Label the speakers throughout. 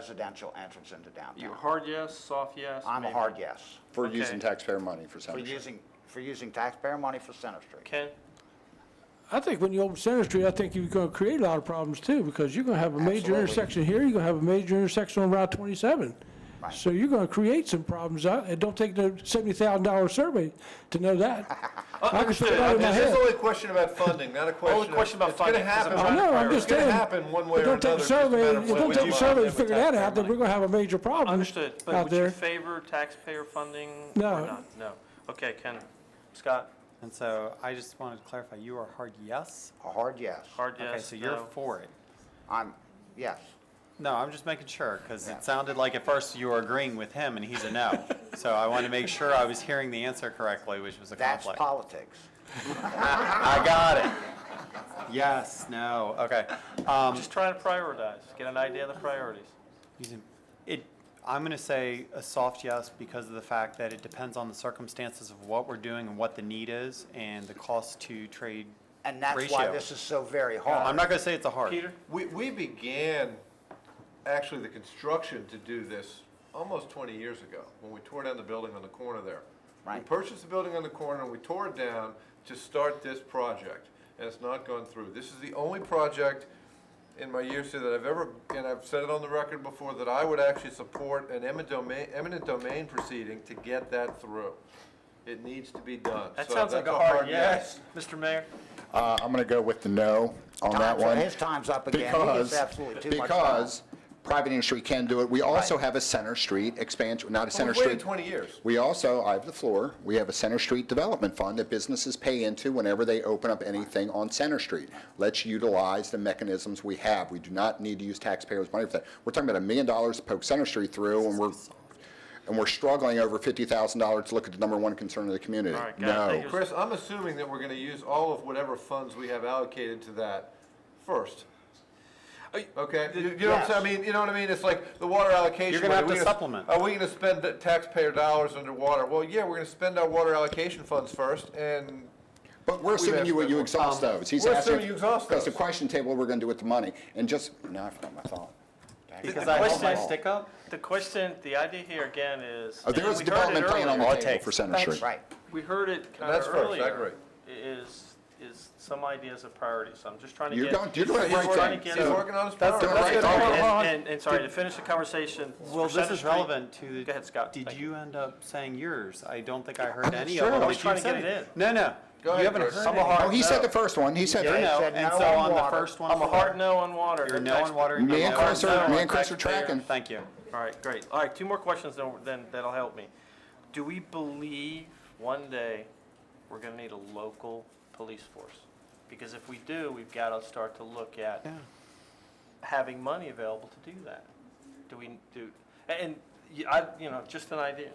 Speaker 1: residential entrance into downtown.
Speaker 2: You a hard yes, soft yes?
Speaker 1: I'm a
Speaker 2: maybe?
Speaker 1: hard yes,
Speaker 3: For
Speaker 2: Okay.
Speaker 3: using taxpayer money for
Speaker 1: for
Speaker 3: Center Street.
Speaker 1: using, for using taxpayer money for Center Street.
Speaker 2: Ken?
Speaker 4: I think when you open Center Street, I think you're gonna create a lot of problems too, because you're gonna have a major
Speaker 1: Absolutely.
Speaker 4: intersection here, you're gonna have a major intersection on Route twenty-seven.
Speaker 1: Right.
Speaker 4: So you're gonna create some problems, I- it don't take the seventy thousand dollar survey to know that. I can figure it out in my
Speaker 5: This is
Speaker 4: head.
Speaker 5: only a question about funding, not a question. of-
Speaker 2: question about funding,
Speaker 5: It's
Speaker 2: 'cause I'm
Speaker 5: gonna
Speaker 4: I
Speaker 5: happen.
Speaker 4: know, I'm just
Speaker 5: It's gonna
Speaker 4: saying.
Speaker 5: happen one way
Speaker 4: it
Speaker 5: or
Speaker 4: don't take
Speaker 5: another.
Speaker 4: a
Speaker 5: It's just a matter
Speaker 4: survey,
Speaker 5: of
Speaker 4: it
Speaker 5: when
Speaker 4: don't
Speaker 5: we
Speaker 4: take a
Speaker 5: do it.
Speaker 4: survey to figure that out, then we're gonna have a major problem
Speaker 2: Understood, but
Speaker 4: out
Speaker 2: would you
Speaker 4: there.
Speaker 2: favor taxpayer funding or
Speaker 4: No.
Speaker 2: not? No. Okay, Ken. Scott,
Speaker 6: And so I just wanted to clarify, you are hard yes?
Speaker 1: A hard yes.
Speaker 2: hard
Speaker 6: Okay,
Speaker 2: yes,
Speaker 6: so you're
Speaker 2: no?
Speaker 6: for it.
Speaker 1: I'm, yes,
Speaker 6: No, I'm just making sure, because
Speaker 1: Yeah.
Speaker 6: it sounded like at first you were agreeing with him and he's a no. So I wanted to make sure I was hearing the answer correctly, which was a
Speaker 1: that's
Speaker 6: conflict.
Speaker 1: politics.
Speaker 6: I got it. Yes, no, okay. Um,
Speaker 2: Just trying to prioritize, get an idea of the priorities.
Speaker 6: using- It, I'm going to say a soft yes because of the fact that it depends on the circumstances of what we're doing and what the need is and the cost to trade
Speaker 1: And that's why
Speaker 6: ratio.
Speaker 1: this is so very
Speaker 6: I'm
Speaker 1: hard.
Speaker 6: not going to say it's a hard.
Speaker 2: Peter?
Speaker 5: We, we began actually the construction to do this almost 20 years ago, when we tore down the building on the corner there. We
Speaker 1: Right.
Speaker 5: purchased the building on the corner, and we tore it down to start this project, and it's not gone through. This is the only project in my years here that I've ever, and I've said it on the record before, that I would actually support an eminent domain, eminent domain proceeding to get that through. It needs to be done.
Speaker 2: That
Speaker 5: So
Speaker 2: sounds like
Speaker 5: that's
Speaker 2: a hard yes. Mr. Mayor?
Speaker 3: Uh, I'm going to go with the no on that
Speaker 1: Time's-
Speaker 3: one.
Speaker 1: His time's up again. He gets
Speaker 3: Because,
Speaker 1: absolutely too much time.
Speaker 3: because private industry can do it. We also have a Center Street expansion, not a
Speaker 5: Well,
Speaker 3: Center
Speaker 5: We've waited
Speaker 3: Street.
Speaker 5: 20 years.
Speaker 3: We also, I have the floor, we have a Center Street Development Fund that businesses pay into whenever they open up anything on Center Street. Let's utilize the mechanisms we have. We do not need to use taxpayers' money for that. We're talking about a million dollars to poke Center Street through, and we're, and we're struggling over $50,000 to look at the number one concern of the community.
Speaker 2: All right, guys,
Speaker 3: No.
Speaker 2: thank you.
Speaker 5: Chris, I'm assuming that we're gonna use all of whatever funds we have allocated to that first. Okay, you you know what I'm saying, I mean, you know what I mean, it's like the water allocation.
Speaker 6: You're gonna have
Speaker 5: are
Speaker 6: to
Speaker 5: we
Speaker 6: supplement.
Speaker 5: Are we gonna spend the taxpayer dollars underwater? Well, yeah, we're gonna spend our water allocation funds first and
Speaker 3: But we're assuming
Speaker 5: asked
Speaker 3: you,
Speaker 5: that
Speaker 3: you
Speaker 5: one.
Speaker 3: exhaust those. He's
Speaker 5: we're
Speaker 3: asking-
Speaker 5: assuming you exhaust
Speaker 3: Because the
Speaker 5: those.
Speaker 3: question table, what we're gonna do with the money, and just, no, I forgot my thought.
Speaker 6: Because I held my
Speaker 2: question-
Speaker 6: stick up?
Speaker 2: The question, the idea here again is.
Speaker 3: Oh, There
Speaker 2: and
Speaker 3: is a
Speaker 2: we heard it
Speaker 3: development plan on
Speaker 2: earlier.
Speaker 3: the
Speaker 6: I'll
Speaker 3: table
Speaker 6: take-
Speaker 3: for Center
Speaker 1: That's
Speaker 3: Street.
Speaker 1: right.
Speaker 2: We heard it kind
Speaker 5: that's
Speaker 2: of
Speaker 5: first, I
Speaker 2: earlier.
Speaker 5: agree.
Speaker 2: Is, is some ideas of priorities, so I'm just trying to get.
Speaker 3: You're going- you're doing the
Speaker 2: I'm just
Speaker 3: right
Speaker 2: trying
Speaker 3: thing.
Speaker 2: to get
Speaker 5: he's
Speaker 3: So-
Speaker 2: a-
Speaker 5: working on his
Speaker 6: That's the-
Speaker 5: priorities.
Speaker 3: that's the-
Speaker 2: And-
Speaker 6: Hold on.
Speaker 2: And, and sorry, to finish the conversation.
Speaker 6: Well,
Speaker 2: for
Speaker 6: this
Speaker 2: Center
Speaker 6: is
Speaker 2: Street-
Speaker 6: relevant to.
Speaker 2: Go ahead, Scott.
Speaker 6: Did
Speaker 2: Thank
Speaker 6: you end up saying yours? I don't think I heard any
Speaker 3: sure.
Speaker 6: of them.
Speaker 3: I
Speaker 2: was
Speaker 6: but
Speaker 2: trying
Speaker 6: you
Speaker 2: to get
Speaker 6: said
Speaker 2: it in.
Speaker 6: No, no.
Speaker 5: Go ahead,
Speaker 6: You haven't
Speaker 5: Chris.
Speaker 2: I'm
Speaker 6: heard
Speaker 2: a
Speaker 6: any.
Speaker 2: hard
Speaker 3: Oh, he said
Speaker 2: no.
Speaker 3: the first one, he said,
Speaker 6: I
Speaker 3: me
Speaker 6: know,
Speaker 1: said
Speaker 6: and
Speaker 1: no
Speaker 6: so
Speaker 1: on
Speaker 6: on the
Speaker 1: water.
Speaker 6: first one.
Speaker 2: I'm a hard no on water.
Speaker 6: You're
Speaker 2: That's
Speaker 6: no on
Speaker 2: actually-
Speaker 6: water. you're
Speaker 3: and
Speaker 6: no on
Speaker 3: Chris are,
Speaker 6: water.
Speaker 3: me and Chris are
Speaker 6: Taxpayer.
Speaker 3: tracking.
Speaker 6: Thank you.
Speaker 2: All right, great. All right, two more questions, then, then that'll help me. Do we believe one day we're gonna need a local police force? Because if we do, we've gotta start to look at having money available to do that. Do we, do, and, y- I, you know, just an idea.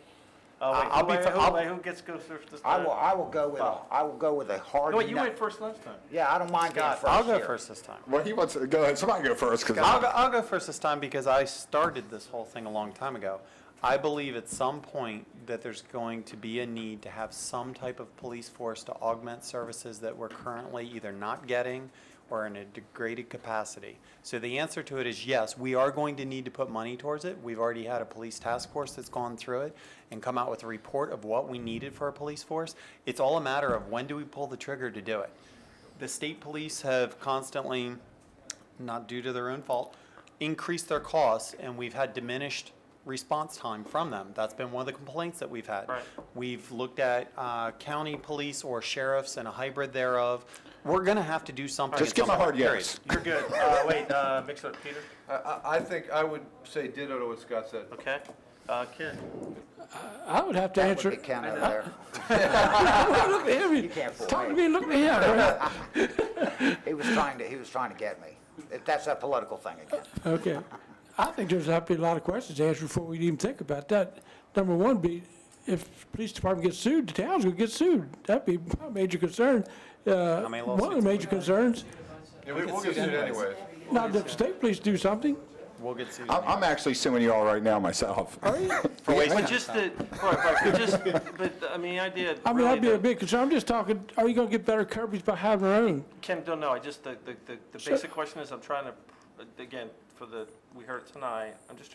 Speaker 2: Uh, wait,
Speaker 6: I'll
Speaker 2: who-
Speaker 6: be
Speaker 2: wait,
Speaker 6: fi-
Speaker 2: who-
Speaker 6: I'll-
Speaker 2: wait, Who gets to go first this
Speaker 1: I
Speaker 2: time?
Speaker 1: will, I will go with, a- I will go with a hard
Speaker 2: No,
Speaker 1: no.
Speaker 2: wait, you went first last time.
Speaker 1: Yeah, I don't mind being first
Speaker 6: I'll go
Speaker 1: here.
Speaker 6: first this time.
Speaker 3: Well, he wants, to go ahead, somebody go first,
Speaker 6: I'll go,
Speaker 3: because
Speaker 6: I'll go first this time because I started this whole thing a long time ago. I believe at some point that there's going to be a need to have some type of police force to augment services that we're currently either not getting or in a degraded capacity. So the answer to it is yes, we are going to need to put money towards it. We've already had a police task force that's gone through it and come out with a report of what we needed for a police force. It's all a matter of when do we pull the trigger to do it. The state police have constantly not due to their own fault, increased their costs, and we've had diminished response time from them. That's been one of the complaints that we've had.
Speaker 2: Right.
Speaker 6: We've looked at uh, county police or sheriffs and a hybrid thereof. We're going to have to do something.
Speaker 3: Just
Speaker 6: at
Speaker 3: give
Speaker 6: some
Speaker 3: him a
Speaker 6: point,
Speaker 3: hard
Speaker 6: period.
Speaker 3: yes.
Speaker 2: You're good. Uh, wait, uh, mix it up, Peter,
Speaker 5: I, I- I think I would say ditto to what Scott said.
Speaker 2: okay? Uh, Ken?
Speaker 4: I would have to
Speaker 1: That would
Speaker 4: answer,
Speaker 1: be Ken over there.
Speaker 4: look at him,
Speaker 1: can't fool
Speaker 4: talk to
Speaker 1: me.
Speaker 4: me, look at him,
Speaker 1: He was trying to, he was trying to get me. That's that political thing again.
Speaker 4: okay. I think there's have to be a lot of questions answered before we even think about that. Number one be, if the police department gets sued, the town's gonna get sued, that'd be my major concern. Uh, one
Speaker 6: many
Speaker 4: of the
Speaker 6: lawsuits?
Speaker 4: major concerns,
Speaker 5: Yeah, we- We'll get sued anyways.
Speaker 4: not that the state police do something,
Speaker 6: We'll get sued.
Speaker 3: I'm, I'm actually suing you all right now myself.
Speaker 6: For waste
Speaker 2: But
Speaker 6: of
Speaker 2: just
Speaker 6: time.
Speaker 2: the, right, right, but just, but, I mean, the idea.
Speaker 4: I mean,
Speaker 2: really
Speaker 4: that'd be a
Speaker 2: that-
Speaker 4: big concern, I'm just talking, are you gonna get better coverage by having our own?
Speaker 2: Ken, don't know, I just, the, the, the the basic question is, I'm trying to, again, for the, we heard tonight, I'm just